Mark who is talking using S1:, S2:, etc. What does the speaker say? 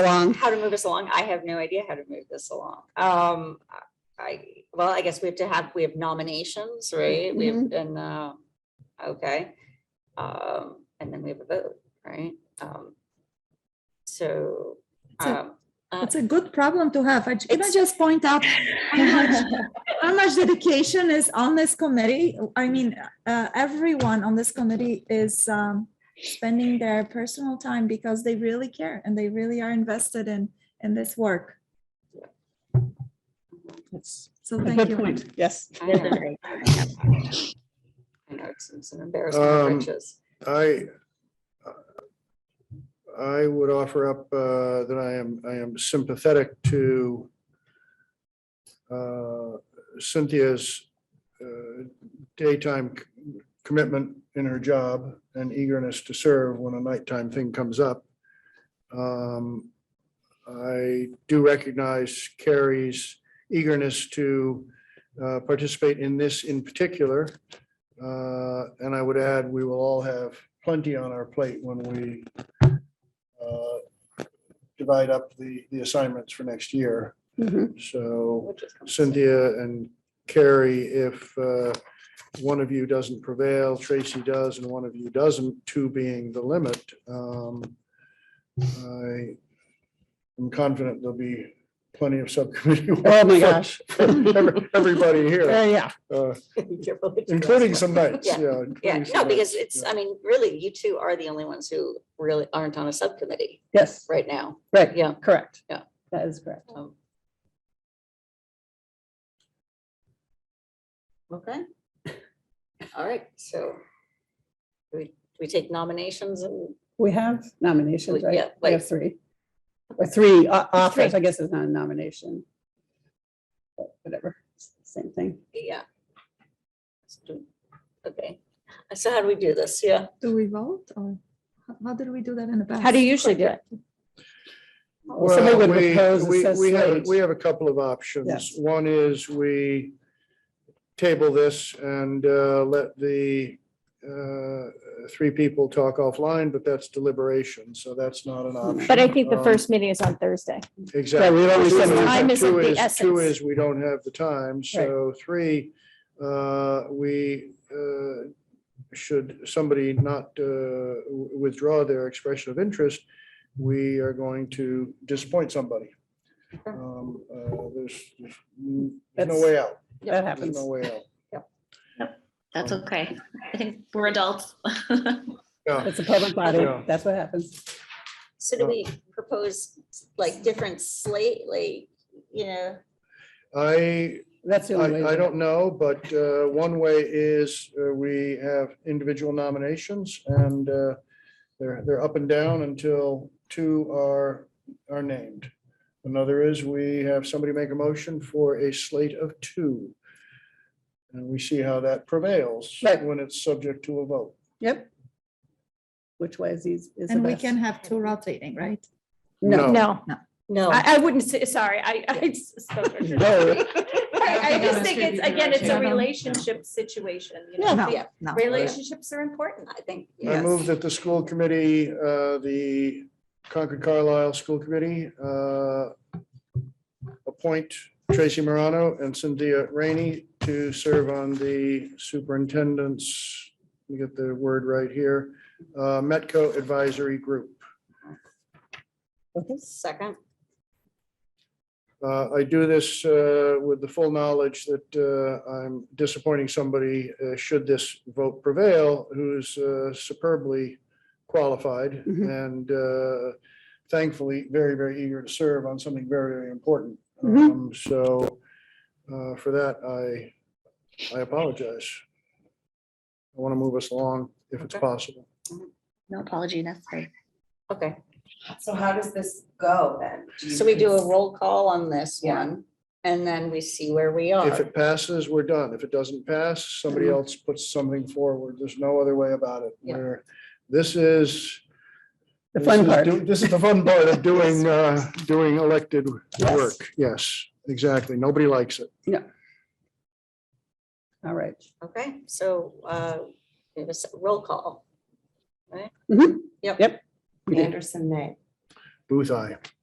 S1: along.
S2: how to move this along. I have no idea how to move this along. Um, I, well, I guess we have to have, we have nominations, right? We have, and, uh, okay. Um, and then we have a vote, right? Um, so,
S1: It's a-
S2: um, uh,
S1: It's a good problem to have. I ju- Can I just point out how much, how much dedication is on this committee? I mean, uh, everyone on this committee is um, spending their personal time because they really care and they really are invested in, in this work.
S3: That's
S1: So
S3: a
S1: thank
S3: good
S1: you.
S3: point. Yes.
S2: I know. I know it's it's an embarrassment of
S4: Um,
S2: riches.
S4: I, I would offer up uh, that I am, I am sympathetic to uh, Cynthia's uh, daytime c- commitment in her job and eagerness to serve when a nighttime thing comes up. Um, I do recognize Carrie's eagerness to uh, participate in this in particular. Uh, And I would add, we will all have plenty on our plate when we uh, divide up the, the assignments for next year.
S1: Mm-hmm.
S3: Mhm.
S4: So
S2: We'll just come to
S4: Cynthia and Carrie, if uh, one of you doesn't prevail, Tracy does, and one of you doesn't, two being the limit, um, I am confident there'll be plenty of subcommittee.
S3: Oh, my
S4: work for-
S3: gosh.
S4: for every- Everybody here,
S3: Uh, Yeah,
S4: uh,
S2: You're really doing
S4: including
S2: this.
S4: some nights,
S2: Yeah.
S4: yeah.
S2: Yeah,
S4: including
S2: no,
S4: some
S2: because
S4: nights,
S2: it's,
S4: yeah.
S2: I mean, really, you two are the only ones who really aren't on a subcommittee
S3: yes,
S2: right now.
S3: right,
S2: Yeah.
S3: correct.
S2: Yeah.
S3: That is correct.
S2: Um, Okay. All right, so do we, do we take nominations and,
S3: We have nominations,
S2: We-
S3: right?
S2: yeah,
S3: We
S2: like-
S3: have three. Or three o- offers, I guess it's not a nomination. But Whatever, it's the same thing.
S2: yeah. Let's do- Okay, so how do we do this? Yeah,
S1: Do we vote or how- how did we do that in the past?
S3: How do you usually do it? Well, somebody
S4: Well,
S3: would
S4: we,
S3: propose and
S4: we,
S3: says
S4: we have,
S3: slate.
S4: we have a couple of options.
S3: Yes.
S4: One is we table this and uh, let the uh, three people talk offline, but that's deliberation, so that's not
S3: Hmm.
S4: an option.
S5: But I think the
S4: Um,
S5: first meeting is on Thursday.
S4: Exactly.
S3: Yeah, we've already
S4: Two
S3: said
S4: is-
S5: time is of
S4: two
S5: the
S4: is- Two
S5: essence.
S4: is, we don't have the time, so three, uh, we uh, should somebody not uh, w- withdraw their expression of interest, we are going to disappoint somebody. Um, uh, There's there's n- there's no
S3: That's-
S4: way out.
S3: That
S4: There's
S3: happens.
S4: no way out.
S6: That's
S4: Um,
S6: okay. I think we're adults.
S4: Yeah.
S3: It's a public body.
S4: Yeah.
S3: That's what happens.
S2: so do
S4: Uh,
S2: we propose like different slate, like, you know?
S4: I
S3: That's the only way. to
S4: I,
S3: do
S4: I
S3: it.
S4: don't know, but uh, one way is uh, we have individual nominations and uh, they're, they're up and down until two are, are named. Another is we have somebody make a motion for a slate of two. And we see how that prevails
S3: Right.
S4: when it's subject to a vote.
S3: Yep. Which way is eas- is the
S1: And we
S3: best?
S1: can have two rotating, right?
S3: No,
S5: No,
S2: No.
S5: I, I wouldn't say, sorry, I, I spoke. for sure.
S3: No.
S5: I I just think it's, again, it's a
S1: Yeah.
S5: relationship situation, you know?
S1: No,
S5: Yeah.
S1: no.
S5: Relationships are important.
S2: I think,
S4: I
S2: yeah,
S4: move that the school committee, uh, the Concord Carlisle School Committee, uh, appoint Tracy Morano and Cynthia Rainey to serve on the superintendent's, let me get the word right here, uh, Metco Advisory Group.
S2: second,
S4: Uh, I do this uh, with the full knowledge that uh, I'm disappointing somebody, uh, should this vote prevail, who's uh, superbly qualified and uh, thankfully very, very eager to serve on something very, very important.
S3: Mhm.
S4: Um, So uh, for that, I, I apologize. I want to move us along if it's
S2: Okay.
S4: possible.
S6: No apology necessary.
S2: okay.
S7: So how does this go then? you
S2: So we do a
S7: cons-
S2: roll call on this
S7: Yeah.
S2: one and then we see where we are.
S4: If it passes, we're done. If it doesn't pass, somebody
S3: Mm-hmm.
S4: else puts something forward. There's no other way about it.
S2: Yeah.
S4: Where this is.
S3: The
S4: this
S3: fun
S4: is
S3: part.
S4: do- This is the fun part of doing, uh, doing elected work. Yes, exactly. Nobody likes it.
S3: All right.
S2: Okay, so uh, we have a s- roll call.
S3: Mhm.
S2: Yep.
S3: Yep. We did.
S7: Anderson, nay.
S4: Booth, I.